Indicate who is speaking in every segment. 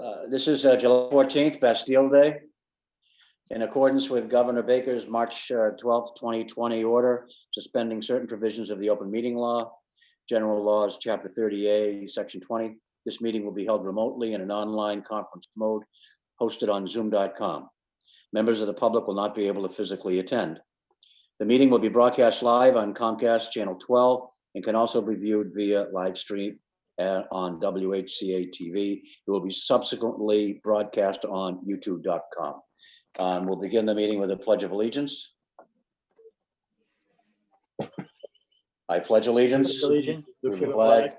Speaker 1: Uh, This is uh, July 14th, Bastille Day. In accordance with Governor Baker's March uh, 12th, 2020 order suspending certain provisions of the open meeting law, general laws, Chapter 30A, Section 20, this meeting will be held remotely in an online conference mode hosted on zoom.com. Members of the public will not be able to physically attend. The meeting will be broadcast live on Comcast Channel 12 and can also be viewed via live stream uh, on WHCA TV. It will be subsequently broadcast on youtube.com. Um, We'll begin the meeting with a pledge of allegiance. I pledge allegiance to
Speaker 2: Allegiance
Speaker 1: the
Speaker 2: to the
Speaker 1: flag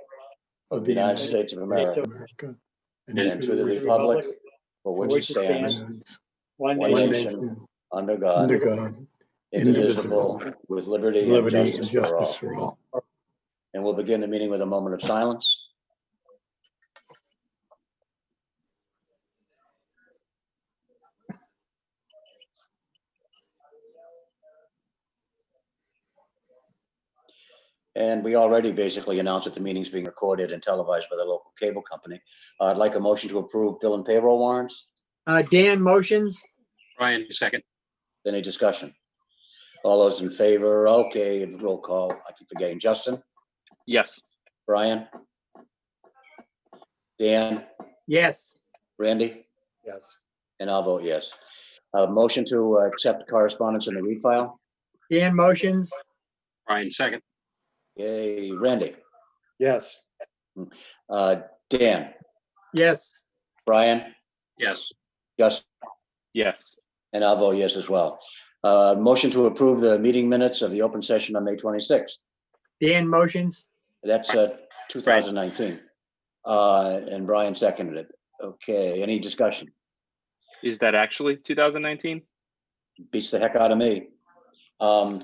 Speaker 3: of
Speaker 1: the United States of America,
Speaker 3: America,
Speaker 1: and to the republic for which it stands,
Speaker 2: One
Speaker 1: one
Speaker 2: nation,
Speaker 1: nation, under
Speaker 3: Under
Speaker 1: God,
Speaker 3: God,
Speaker 1: indivisible, with liberty and
Speaker 3: liberty and
Speaker 1: justice for all.
Speaker 3: justice for all.
Speaker 1: And we'll begin the meeting with a moment of silence. And we already basically announced that the meeting's being recorded and televised by the local cable company. Uh, I'd like a motion to approve bill and payroll warrants.
Speaker 2: Uh, Dan motions,
Speaker 4: Brian, second.
Speaker 1: Any discussion? All those in favor? Okay, roll call. I keep forgetting. Justin?
Speaker 4: Yes.
Speaker 1: Brian? Dan?
Speaker 2: yes.
Speaker 1: Randy?
Speaker 2: Yes.
Speaker 1: And I'll vote yes. Uh, motion to uh, accept correspondence in the read file.
Speaker 2: Dan motions,
Speaker 4: Brian, second.
Speaker 1: Yay, Randy,
Speaker 5: Yes,
Speaker 1: uh, Dan,
Speaker 2: yes.
Speaker 1: Brian,
Speaker 4: Yes.
Speaker 1: Gus,
Speaker 4: Yes.
Speaker 1: and I'll vote yes as well. Uh, motion to approve the meeting minutes of the open session on May twenty-sixth.
Speaker 2: Dan motions,
Speaker 1: That's, uh, two thousand nineteen. Uh, and Brian seconded it. Okay, any discussion?
Speaker 6: Is that actually 2019?
Speaker 1: Beats the heck out of me. Um,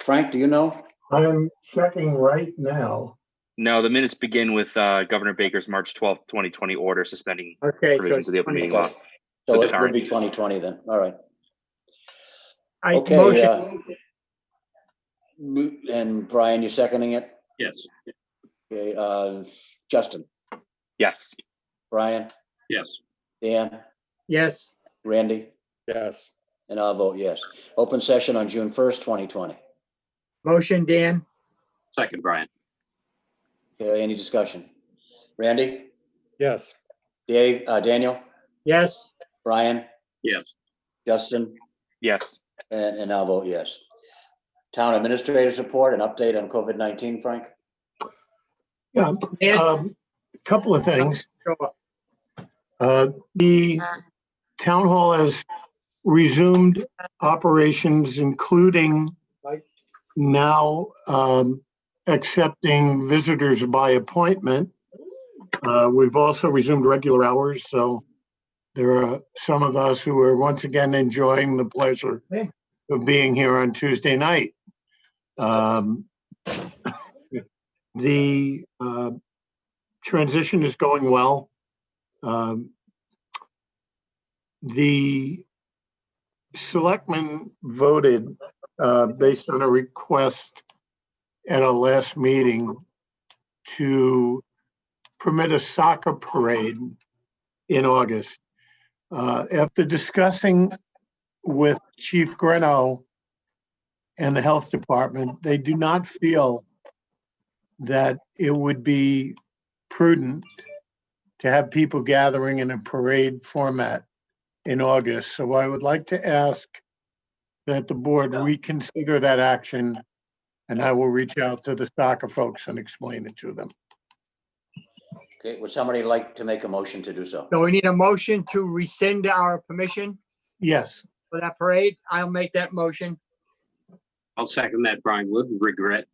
Speaker 1: Frank, do you know?
Speaker 3: I'm checking right now.
Speaker 6: No, the minutes begin with uh, Governor Baker's March 12th, 2020 order suspending
Speaker 2: okay. so
Speaker 6: provisions of the open meeting law.
Speaker 1: Okay. So
Speaker 6: So
Speaker 1: it would
Speaker 6: current.
Speaker 1: be twenty twenty then, all right.
Speaker 2: I
Speaker 1: Okay.
Speaker 2: motion,
Speaker 1: uh, mo- And Brian, you're seconding it?
Speaker 4: Yes.
Speaker 1: Okay, uh, Justin,
Speaker 6: Yes.
Speaker 1: Brian,
Speaker 4: Yes.
Speaker 1: Dan,
Speaker 2: yes.
Speaker 1: Randy,
Speaker 5: yes,
Speaker 1: and I'll vote yes. Open session on June first, twenty twenty.
Speaker 2: Motion, Dan,
Speaker 4: Second, Brian.
Speaker 1: Okay, any discussion? Randy,
Speaker 5: yes,
Speaker 1: Dave, uh, Daniel,
Speaker 2: yes.
Speaker 1: Brian?
Speaker 4: Yes.
Speaker 1: Justin,
Speaker 6: Yes.
Speaker 1: and, and I'll vote yes. Town administrators report, an update on COVID nineteen, Frank?
Speaker 3: Yeah,
Speaker 2: Dan,
Speaker 3: um, couple of things.
Speaker 2: sure.
Speaker 3: Uh, The town hall has resumed operations, including now um, accepting visitors by appointment. Uh, We've also resumed regular hours, so there are some of us who are once again enjoying the pleasure of being here on Tuesday night. Um, The uh, transition is going well. Um, The selectmen voted, uh, based on a request at a last meeting to permit a soccer parade in August. Uh, after discussing with Chief Greno and the Health Department, they do not feel that it would be prudent to have people gathering in a parade format in August. So I would like to ask that the board reconsider that action, and I will reach out to the soccer folks and explain it to them.
Speaker 1: Okay, would somebody like to make a motion to do so?
Speaker 2: So we need a motion to rescind our permission
Speaker 3: Yes,
Speaker 2: for that parade. I'll make that motion.
Speaker 4: I'll second that, Brian, with regret.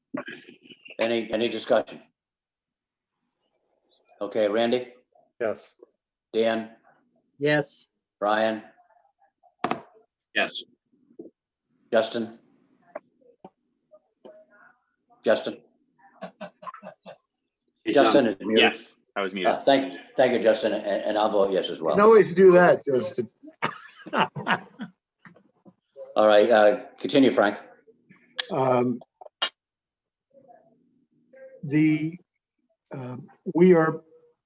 Speaker 1: Any, any discussion? Okay, Randy,
Speaker 5: yes,
Speaker 1: Dan,
Speaker 2: Yes.
Speaker 1: Brian,
Speaker 4: Yes.
Speaker 1: Justin? Justin?
Speaker 4: He's on.
Speaker 1: Justin is muted.
Speaker 6: Yes. I was muted.
Speaker 1: Uh, Thank, thank you, Justin, and, and I'll vote yes as
Speaker 3: you
Speaker 1: well.
Speaker 3: can always do that, Justin.
Speaker 1: All right, uh, continue, Frank.
Speaker 3: Um, The, um, we are